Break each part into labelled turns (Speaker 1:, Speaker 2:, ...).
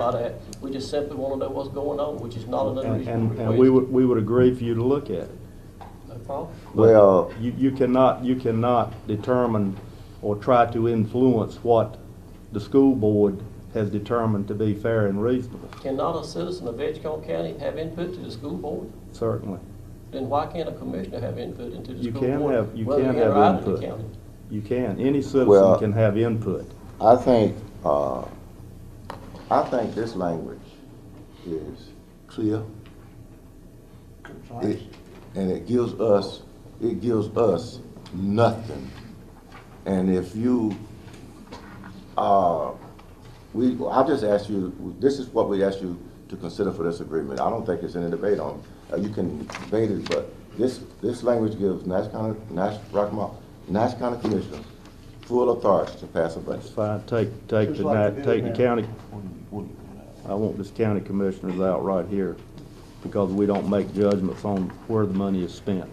Speaker 1: about that. We just simply want to know what's going on, which is not an
Speaker 2: And,
Speaker 1: unreasonable
Speaker 2: and,
Speaker 1: request.
Speaker 2: and we would, we would agree for you to look at it.
Speaker 1: No problem.
Speaker 3: Well,
Speaker 2: You, you cannot, you cannot determine or try to influence what the school board has determined to be fair and reasonable,
Speaker 1: Cannot a citizen of Edgecombe County have input to the school board?
Speaker 2: certainly.
Speaker 1: Then why can't a commissioner have input into the
Speaker 2: You
Speaker 1: school
Speaker 2: can
Speaker 1: board?
Speaker 2: have- you
Speaker 1: whether
Speaker 2: can
Speaker 1: in or
Speaker 2: have
Speaker 1: out of the
Speaker 2: input.
Speaker 1: county?
Speaker 2: You can, any citizen
Speaker 3: Well-
Speaker 2: can have input.
Speaker 3: I think, uh, I think this language is clear. It- And it gives us, it gives us nothing. And if you, uh, we, I just ask you, this is what we ask you to consider for this agreement. I don't think it's any debate on, uh, you can debate it, but this, this language gives Nash County, Nash, Rockmore, Nash County Commissioner full authority to pass a budget.
Speaker 2: It's fine, take, take
Speaker 4: Just
Speaker 2: the,
Speaker 4: like
Speaker 2: ni-
Speaker 4: they
Speaker 2: take
Speaker 4: do
Speaker 2: the
Speaker 4: now.
Speaker 2: county, I want this county commissioners out right here, because we don't make judgments on where the money is spent.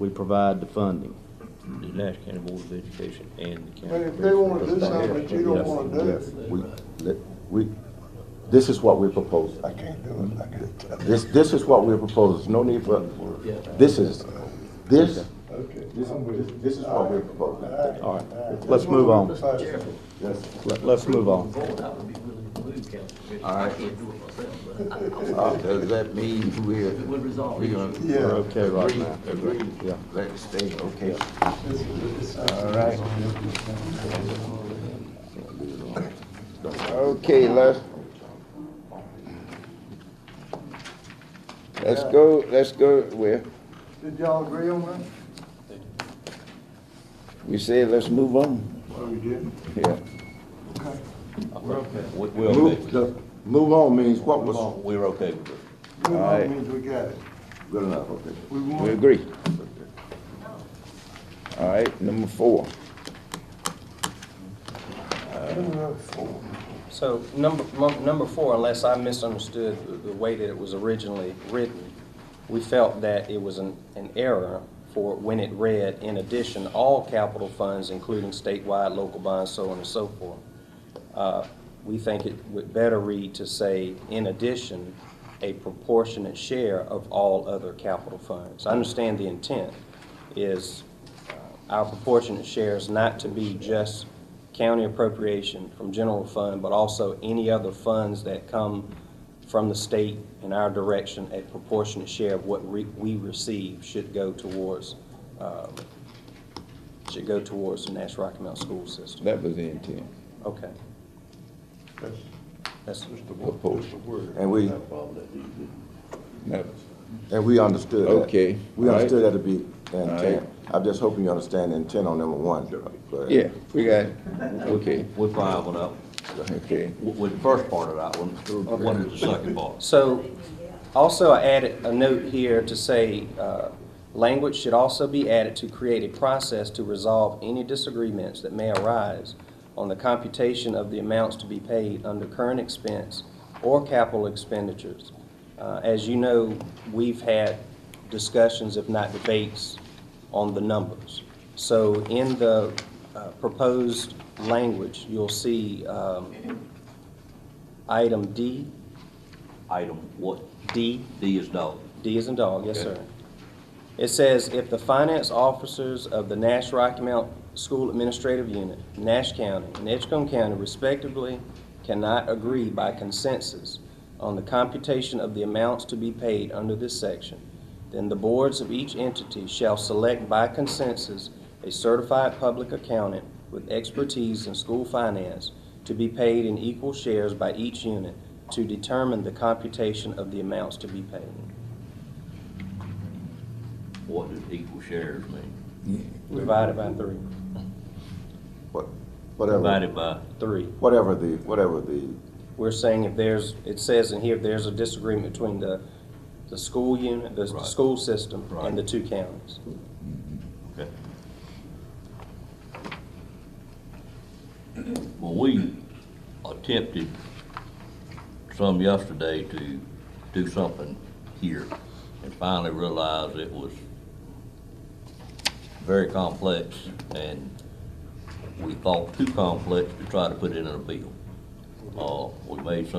Speaker 2: We provide the funding.
Speaker 5: the Nash County Board of Education and the county.
Speaker 4: But if they wanna do something that you don't wanna do,
Speaker 3: Yes, we, let- we, this is what we're proposing.
Speaker 4: I can't do it, I can't.
Speaker 3: This, this is what we're proposing, no need for, this is, this,
Speaker 4: Okay.
Speaker 3: this, this is what we're proposing.
Speaker 2: All right, let's move on.
Speaker 4: That's-
Speaker 3: Yes.
Speaker 2: Let, let's move on.
Speaker 1: Board, I would be willing to move council commissioner.
Speaker 6: All
Speaker 1: I
Speaker 6: right.
Speaker 1: can't do it myself, but
Speaker 6: Uh, Does that mean we're?
Speaker 1: it would resolve
Speaker 6: we're
Speaker 1: the
Speaker 6: gonna
Speaker 1: issue.
Speaker 4: Yeah.
Speaker 2: We're okay right
Speaker 6: agree-
Speaker 2: now.
Speaker 6: Agree,
Speaker 2: Yeah.
Speaker 6: let it stay, okay.
Speaker 4: All
Speaker 6: right. Okay, let's, let's go, let's go with,
Speaker 4: Did y'all agree on that?
Speaker 6: we said let's move on.
Speaker 4: Oh, you did?
Speaker 6: Yeah.
Speaker 4: Okay.
Speaker 3: Move, the- move on means what was,
Speaker 5: We're okay with it.
Speaker 4: Move
Speaker 6: All right.
Speaker 4: on means we got it.
Speaker 3: good enough, okay.
Speaker 4: We
Speaker 6: We
Speaker 4: won.
Speaker 6: agree. All right, number four.
Speaker 7: So number, mu- number four, unless I misunderstood the- the way that it was originally written, we felt that it was an, an error for when it read, in addition, all capital funds, including statewide, local bonds, so on and so forth. Uh, We think it would better read to say, in addition, a proportionate share of all other capital funds. I understand the intent is uh, our proportionate share is not to be just county appropriation from general fund, but also any other funds that come from the state in our direction, a proportionate share of what re- we receive should go towards, um, should go towards the Nash Rocky Mountain School System.
Speaker 6: That was the intent.
Speaker 7: Okay,
Speaker 4: That's
Speaker 7: that's,
Speaker 4: just the word.
Speaker 6: Proposal.
Speaker 4: Just the word.
Speaker 3: And we,
Speaker 6: That-
Speaker 3: and we understood that.
Speaker 6: Okay,
Speaker 3: We
Speaker 6: all right.
Speaker 3: understood that to be the
Speaker 6: All
Speaker 3: intent.
Speaker 6: right.
Speaker 3: I'm just hoping you understand the intent on number one. but-
Speaker 6: Yeah, we got, it. okay,
Speaker 5: We're five one up,
Speaker 6: okay.
Speaker 5: with with the first part of that one, what is the second part?
Speaker 7: so, also I added a note here to say, uh, language should also be added to create a process to resolve any disagreements that may arise on the computation of the amounts to be paid under current expense or capital expenditures. Uh, As you know, we've had discussions, if not debates, on the numbers. So in the uh, proposed language, you'll see um, item D,
Speaker 5: Item what?
Speaker 7: D,
Speaker 5: D is dog.
Speaker 7: D is in dog, yes,
Speaker 5: Okay.
Speaker 7: sir. It says, if the finance officers of the Nash Rocky Mount School Administrative Unit, Nash County, and Edgecombe County respectively cannot agree by consensus on the computation of the amounts to be paid under this section, then the boards of each entity shall select by consensus a certified public accountant with expertise in school finance to be paid in equal shares by each unit to determine the computation of the amounts to be paid.
Speaker 5: What does equal shares mean?
Speaker 7: Divided by three.
Speaker 3: What- Whatever,
Speaker 5: Divided by,
Speaker 7: Three.
Speaker 3: whatever the, whatever the,
Speaker 7: We're saying if there's, it says in here, if there's a disagreement between the, the school unit, the
Speaker 5: Right.
Speaker 7: school system
Speaker 5: Right.
Speaker 7: and the two counties.
Speaker 5: okay. Well, we attempted some yesterday to do something here and finally realized it was very complex and we thought too complex to try to put it in a bill. Uh, we made some